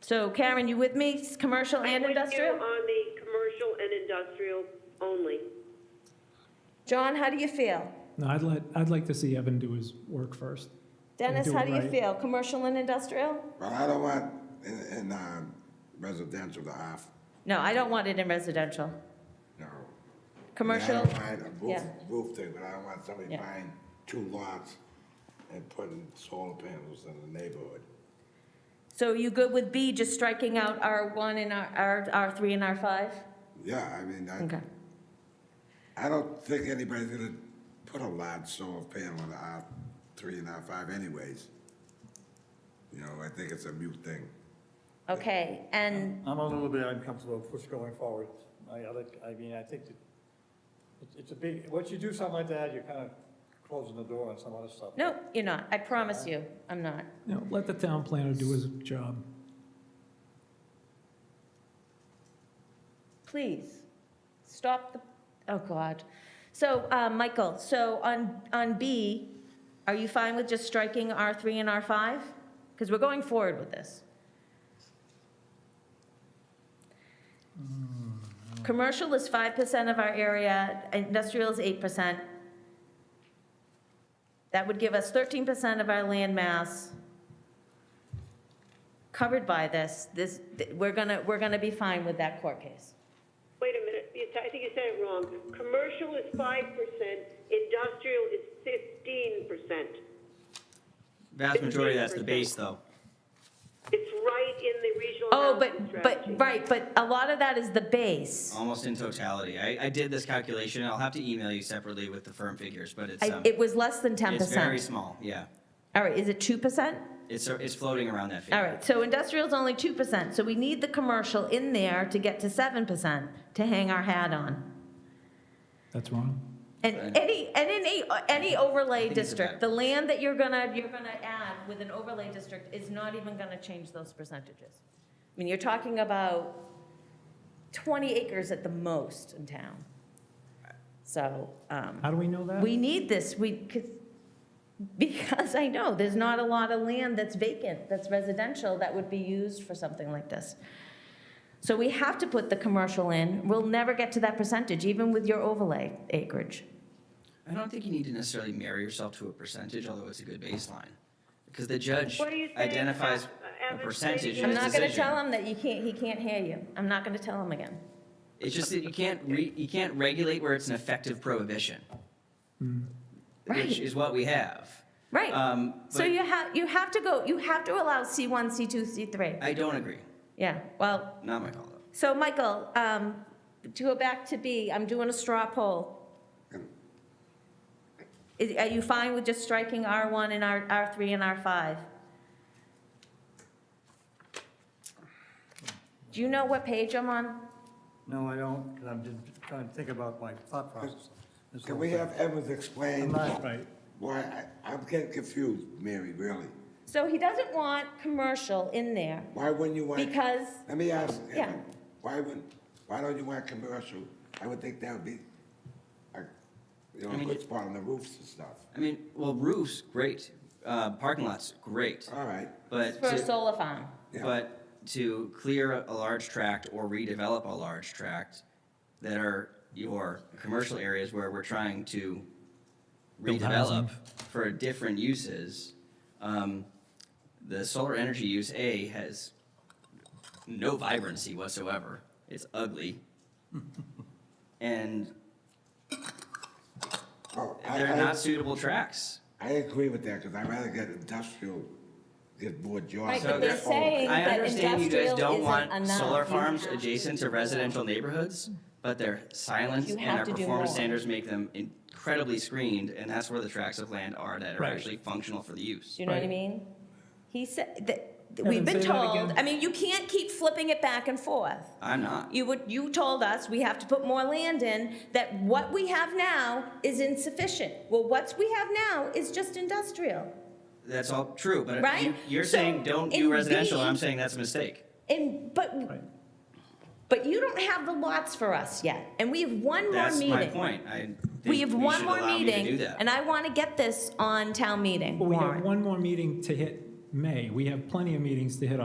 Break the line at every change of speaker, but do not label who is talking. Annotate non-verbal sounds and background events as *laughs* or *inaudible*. So Karen, you with me? It's Commercial and
I'm with you
industrial?
On the commercial and industrial only.
John, how do you feel?
No, I'd let, I'd like to see Evan do his work first.
Dennis,
do
how
it
do you
right.
feel? Commercial and industrial?
Well, I don't want in, in um, residential to have,
No, I don't want it in residential.
you know. I
Commercial,
don't mind a roof,
yeah.
roof thing, but I don't want somebody
Yeah.
buying two lots and putting solar panels in the neighborhood.
so you good with B, just striking out R1 and R, R, R3 and R5?
Yeah, I mean,
Okay.
I, I don't think anybody's gonna put a large solar panel on the R three and R five anyways. You know, I think it's a mute thing.
Okay, and
I'm a little bit uncomfortable with what's going forward. I, I like- I mean, I think that it's- it's a big, once you do something like that, you're kind of closing the door on some other stuff.
No, you're not. I promise you, I'm not.
You know, let the town planner do his job.
Please, stop the, oh, God. So, uh, Michael, so on, on B, are you fine with just striking R3 and R5? Because we're going forward with this. Commercial is 5% of our area, industrial is 8%. That would give us 13% of our land mass covered by this. This, th- we're gonna, we're gonna be fine with that court case.
Wait a minute, you- I think you said it wrong. Commercial is five percent, industrial is fifteen percent.
Vast majority, that's the base, though.
It's right in the regional
Oh,
housing
but, but,
strategy.
right, but a lot of that is the base.
Almost in totality. I, I did this calculation. I'll have to email you separately with the firm figures, but it's,
I-
um,
It was less than ten
it's very
percent.
small, yeah.
All right, is it two percent?
It's, it's floating around that figure.
All right, so industrial's only two percent, so we need the commercial in there to get to seven percent to hang our hat on.
That's wrong.
And
Right.
any, and any, any overlay
think it's a
district,
bad-
the land that you're gonna, you're gonna add with an overlay district is not even gonna change those percentages. I mean, you're talking about twenty acres at the most in town. So, um.
How do we know that?
We need this, we, 'cause- because I know, there's not a lot of land that's vacant, that's residential, that would be used for something like this. So we have to put the commercial in, we'll never get to that percentage, even with your overlay acreage.
I don't think you need to necessarily marry yourself to a percentage, although it's a good baseline. Because the judge
What do you say,
identifies
uh,
a
average
percentage in
I'm
his
not gonna
decision.
tell him that you can't, he can't hear you, I'm not gonna tell him again.
It's just that you can't re, you can't regulate where it's an effective prohibition,
Mm. Right.
which is what we have.
Right,
Um,
so
but-
you have, you have to go, you have to allow C1, C2, C3.
I don't agree.
Yeah, well,
Not my call, though.
So, Michael, um, to go back to B, I'm doing a straw poll. Is- Are you fine with just striking R1 and R, R3 and R5? Do you know what page I'm on?
No, I don't, because I'm just trying to think about my thought process. This
Can
whole
we
thing.
have Evans
I'm
explain
not, right.
why, I, I'm getting confused, Mary, really.
So he doesn't want commercial in there
Why wouldn't you want?
because,
Let me ask,
Yeah.
Evan, why wouldn't, why don't you want commercial? I would think that would be, a you know,
I
a
mean,
good
it-
spot on the roofs and stuff.
I mean, well, roofs, great. Uh, parking lots, great.
All right,
But
for a
to-
solar farm.
Yeah.
But to clear a large tract or redevelop a large tract that are your commercial areas where we're trying to
Build housing.
redevelop for different uses, um, the solar energy use A has no vibrancy whatsoever. It's
*laughs*
ugly. And
oh, I,
they're
I,
not suitable tracks.
I agree with that, because I'd rather get industrial, get more
Right, but
jobs.
So
than
they're
solar.
saying
I
that
understand you guys
industrial
don't
isn't
want
enough.
solar
You
farms
have to
adjacent to
do more.
residential neighborhoods, but their silence
You
and
have
our
to do
performance
more.
standards make them incredibly screened, and that's where the tracts of land are that are
Right.
actually functional for the use.
Do you know what I
Right.
mean? He said, that,
Evan,
we've been
say that
told,
again.
I mean, you can't keep flipping it back and forth.
I'm not.
You would, you told us we have to put more land in, that what we have now is insufficient. Well, what we have now is just industrial.
That's all true, but
Right?
you- you're
So,
saying don't
in
do residential,
B-
and I'm saying that's a mistake.
And, but,
Right.
but you don't have the lots for us yet, and we have one more
That's
meeting.
my point. I
We have
think you
one
should
more
allow me to do
meeting,
that.
and I want to get this on town meeting
Well, we have
warrant.
one more meeting to hit May. We have plenty of meetings to hit